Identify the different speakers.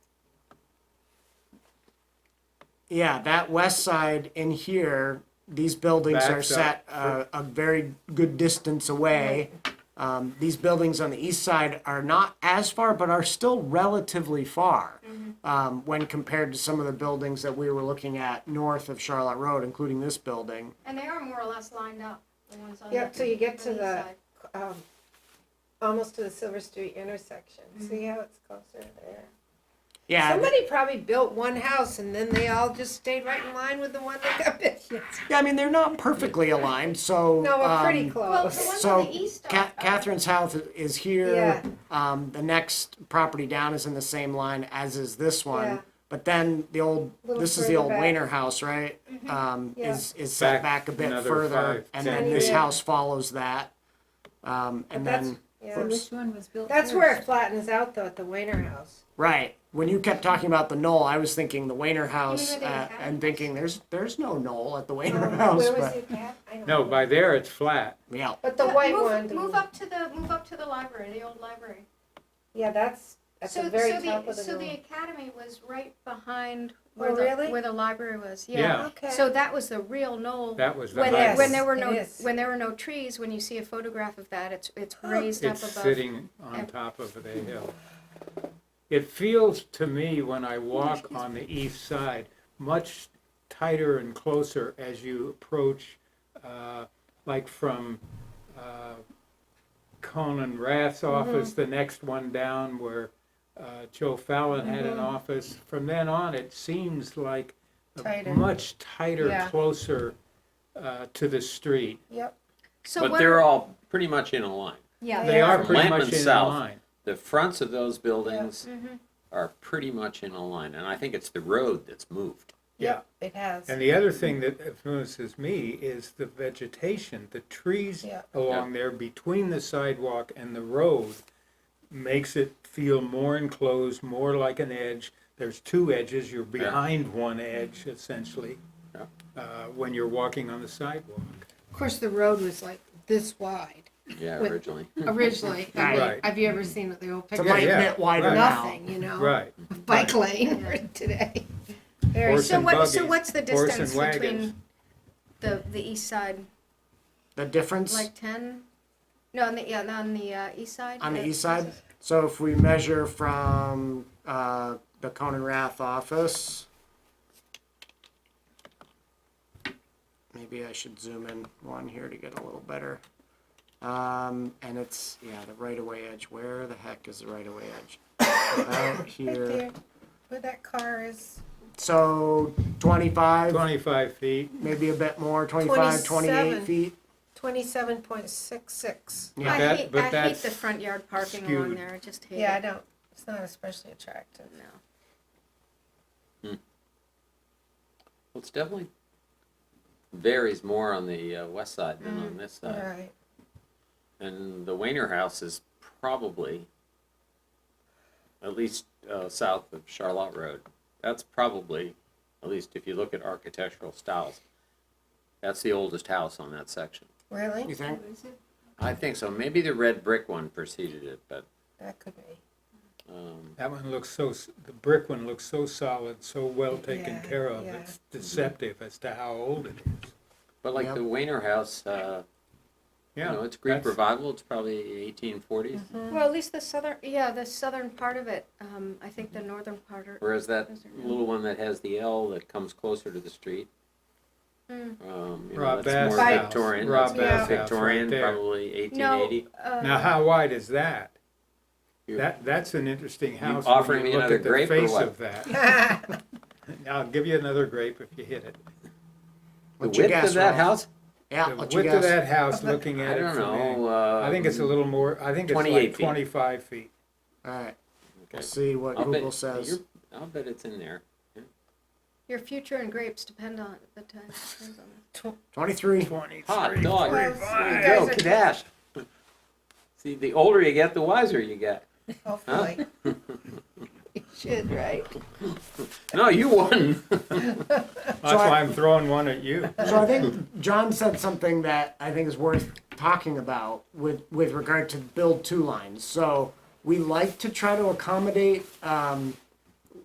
Speaker 1: yeah, that west side in here, these buildings are
Speaker 2: Backs up.
Speaker 1: set uh, a very good distance away. Um, these buildings on the east side are not as far, but are still relatively far
Speaker 3: Mm-hmm.
Speaker 1: um, when compared to some of the buildings that we were looking at north of Charlotte Road, including this building.
Speaker 4: And they are more or less lined up, the ones on.
Speaker 3: Yep,
Speaker 4: the-
Speaker 3: till you get
Speaker 4: on
Speaker 3: to
Speaker 4: east
Speaker 3: the,
Speaker 4: side.
Speaker 3: um, almost to the Silver Street intersection.
Speaker 4: Mm-hmm.
Speaker 3: See how it's closer there?
Speaker 1: Yeah, th-
Speaker 3: Somebody probably built one house and then they all just stayed right in line with the one that got built.
Speaker 1: yeah, I mean, they're not perfectly aligned, so.
Speaker 3: No, we're pretty
Speaker 1: um,
Speaker 4: Well, the
Speaker 3: close.
Speaker 4: ones
Speaker 1: So
Speaker 4: on the east
Speaker 1: Ca-
Speaker 4: are.
Speaker 1: Catherine's house is here.
Speaker 3: Uh, Yeah.
Speaker 1: Um, the next property down is in the same line as is this one.
Speaker 3: Yeah.
Speaker 1: But then the old,
Speaker 3: Little
Speaker 1: this is the
Speaker 3: further
Speaker 1: old
Speaker 3: back. Mm-hmm.
Speaker 1: Wayner house, right? Um,
Speaker 3: Yeah.
Speaker 1: is, is set back
Speaker 2: Back
Speaker 1: a bit
Speaker 2: another
Speaker 1: further
Speaker 2: five,
Speaker 1: and
Speaker 2: ten
Speaker 1: then this
Speaker 3: feet.
Speaker 1: house follows that. Um,
Speaker 3: But
Speaker 1: and
Speaker 3: that's-
Speaker 1: then,
Speaker 3: yeah.
Speaker 1: oops,
Speaker 5: Which one was built
Speaker 3: That's
Speaker 5: first?
Speaker 3: where it flattens out though, at the Weiner House.
Speaker 1: right, when you kept talking about the knoll, I was thinking the Wayner house
Speaker 4: they
Speaker 1: uh,
Speaker 4: have
Speaker 1: and thinking there's, there's no knoll at the
Speaker 3: Um,
Speaker 1: Wayner house,
Speaker 3: Where was
Speaker 1: but,
Speaker 3: it at? I don't
Speaker 2: No,
Speaker 3: know.
Speaker 2: by there it's flat.
Speaker 1: yeah.
Speaker 3: But the
Speaker 4: Yeah,
Speaker 3: white
Speaker 4: move-
Speaker 3: one. the-
Speaker 4: Move up to the, move up to the library, the old library.
Speaker 3: Yeah, that's at
Speaker 4: So,
Speaker 3: the
Speaker 4: so
Speaker 3: very top
Speaker 4: the,
Speaker 3: of the
Speaker 4: so the
Speaker 3: room.
Speaker 4: academy was right behind
Speaker 3: Oh,
Speaker 4: where the,
Speaker 3: really?
Speaker 4: where the library was,
Speaker 2: Yeah.
Speaker 4: yeah.
Speaker 3: Okay.
Speaker 4: So that was the real knoll.
Speaker 2: That was the
Speaker 4: When,
Speaker 3: there-
Speaker 2: highway.
Speaker 4: when there were no,
Speaker 3: It is. Oh.
Speaker 4: when there were no trees, when you see a photograph of that, it's, it's raised up
Speaker 2: It's
Speaker 4: above.
Speaker 2: sitting on
Speaker 4: ev-
Speaker 2: top of the hill. It feels to me when I walk on the east side, much tighter and closer as you approach, uh, like from uh, Conan Rath's
Speaker 4: Mm-hmm.
Speaker 2: office, the next one down where uh, Joe Fallon had
Speaker 4: Mm-hmm.
Speaker 2: an office. From then on, it seems like a
Speaker 3: Tighter.
Speaker 2: much tighter,
Speaker 3: Yeah.
Speaker 2: closer uh, to the street.
Speaker 3: Yep.
Speaker 4: So
Speaker 6: But
Speaker 4: what,
Speaker 6: they're all pretty much in a line.
Speaker 5: Yeah.
Speaker 2: They are
Speaker 6: From
Speaker 2: pretty
Speaker 6: Lampman
Speaker 2: much in
Speaker 6: south.
Speaker 2: line.
Speaker 6: The fronts of those buildings
Speaker 4: Mhm.
Speaker 6: are pretty much in a line, and I think it's the road that's moved.
Speaker 3: Yep, it has.
Speaker 2: And the other thing that influences me is the vegetation, the trees
Speaker 3: Yeah.
Speaker 2: along there between the sidewalk and the road makes it feel more enclosed, more like an edge. There's two edges, you're behind one
Speaker 4: Mm-hmm.
Speaker 2: edge essentially,
Speaker 6: Yeah.
Speaker 2: uh, when you're walking on the sidewalk.
Speaker 7: Of course, the road was like this wide
Speaker 6: Yeah,
Speaker 7: With-
Speaker 6: originally.
Speaker 7: originally. I mean,
Speaker 2: Right.
Speaker 7: Have you ever seen the old
Speaker 1: It's a
Speaker 7: picture?
Speaker 1: light
Speaker 2: yeah,
Speaker 1: bit wider
Speaker 2: right.
Speaker 1: now.
Speaker 7: Nothing, you
Speaker 4: Oh.
Speaker 7: know.
Speaker 2: Right.
Speaker 7: Bike lane today.
Speaker 3: Very-
Speaker 2: Horse
Speaker 4: so
Speaker 2: and
Speaker 4: what, so
Speaker 2: buggies,
Speaker 4: what's the
Speaker 2: horse
Speaker 4: distance
Speaker 2: and wagons.
Speaker 4: between the, the east side,
Speaker 1: The difference?
Speaker 4: like ten? No, on the, yeah, on the, uh, east side?
Speaker 1: On the east side, so if we measure from, uh, the Conan Rath office. Maybe I should zoom in one here to get a little better. Um, and it's, yeah, the right of way edge, where the heck is the right of way edge? About
Speaker 3: Right
Speaker 1: here,
Speaker 3: there, where that car is.
Speaker 1: so twenty-five,
Speaker 2: Twenty-five feet,
Speaker 1: maybe a bit more, 25, 28
Speaker 3: 27.
Speaker 1: feet.
Speaker 3: Twenty-seven point six six.
Speaker 1: Yeah.
Speaker 4: I
Speaker 2: That-
Speaker 4: hate,
Speaker 2: but
Speaker 4: I hate
Speaker 2: that's
Speaker 4: the front yard parking along
Speaker 2: skewed.
Speaker 4: there, I just hate it.
Speaker 3: Yeah, I don't, it's not especially attractive.
Speaker 4: No.
Speaker 6: Well, it's definitely varies more on the uh, west side than
Speaker 4: Mm,
Speaker 6: on this side.
Speaker 3: Right.
Speaker 6: And the Wayner House is probably, at least uh, south of Charlotte Road, that's probably, at least if you look at architectural styles, that's the oldest house on that section.
Speaker 3: Really?
Speaker 1: You think?
Speaker 6: I think so. Maybe the red brick one preceded it, but
Speaker 3: That could be.
Speaker 6: um,
Speaker 2: that one looks so, s- the brick one looks so solid, so well taken
Speaker 3: Yeah,
Speaker 2: care of,
Speaker 3: yeah.
Speaker 2: it's deceptive as to how old it is.
Speaker 6: but like
Speaker 1: Yep.
Speaker 6: the Wayner House, uh,
Speaker 2: Yeah.
Speaker 6: you know, it's Greek
Speaker 2: that's-
Speaker 6: revival. It's probably 1840s.
Speaker 4: Well, at least the southern, yeah, the southern part of it, um, I think the northern part are,
Speaker 6: Whereas that
Speaker 4: Those are really-
Speaker 6: little one that has the L that comes closer to the street.
Speaker 4: Mm.
Speaker 6: Um, you know,
Speaker 2: Rob
Speaker 6: that's
Speaker 2: Bass
Speaker 6: more
Speaker 2: House.
Speaker 6: Victorian.
Speaker 2: Rob
Speaker 6: That's more
Speaker 2: Bass House right
Speaker 6: Victorian,
Speaker 2: there.
Speaker 6: probably
Speaker 4: no,
Speaker 6: 1880.
Speaker 2: Now,
Speaker 4: uh,
Speaker 2: how wide is that?
Speaker 6: You-
Speaker 2: That, that's an interesting house. when
Speaker 6: offering
Speaker 2: you
Speaker 6: me
Speaker 2: look
Speaker 6: another
Speaker 2: at the
Speaker 6: grape or
Speaker 2: face
Speaker 6: what?
Speaker 2: of that. I'll give you another grape if you hit it.
Speaker 6: The
Speaker 1: What'd you
Speaker 6: width
Speaker 1: guess,
Speaker 6: of that
Speaker 1: Ralph?
Speaker 6: house,
Speaker 1: Yeah,
Speaker 2: The
Speaker 1: what you
Speaker 2: width of
Speaker 1: guess?
Speaker 2: that house, looking
Speaker 6: I
Speaker 2: at it
Speaker 6: don't
Speaker 2: from
Speaker 6: know.
Speaker 2: there,
Speaker 6: Uh,
Speaker 2: I think it's a little more, I think it's
Speaker 6: 28
Speaker 2: like
Speaker 6: feet.
Speaker 2: twenty-five feet.
Speaker 1: Alright, we'll
Speaker 6: Okay.
Speaker 1: see what
Speaker 6: I'll bet-
Speaker 1: Google says.
Speaker 6: you're- I'll bet it's in there.
Speaker 4: your future and grapes depend on, the time, depends on
Speaker 1: Twenty-three.
Speaker 6: Hot
Speaker 2: Twenty-three.
Speaker 3: Well,
Speaker 6: dog. There
Speaker 3: you
Speaker 6: you
Speaker 3: guys
Speaker 6: go,
Speaker 3: are-
Speaker 6: Kadash. See, the older you get, the wiser you get.
Speaker 3: Hopefully.
Speaker 7: You should, right?
Speaker 6: No, you won.
Speaker 2: That's why I'm throwing one at you.
Speaker 1: So I think John said something that I think is worth talking about with, with regard to build two lines. So we like to try to accommodate um,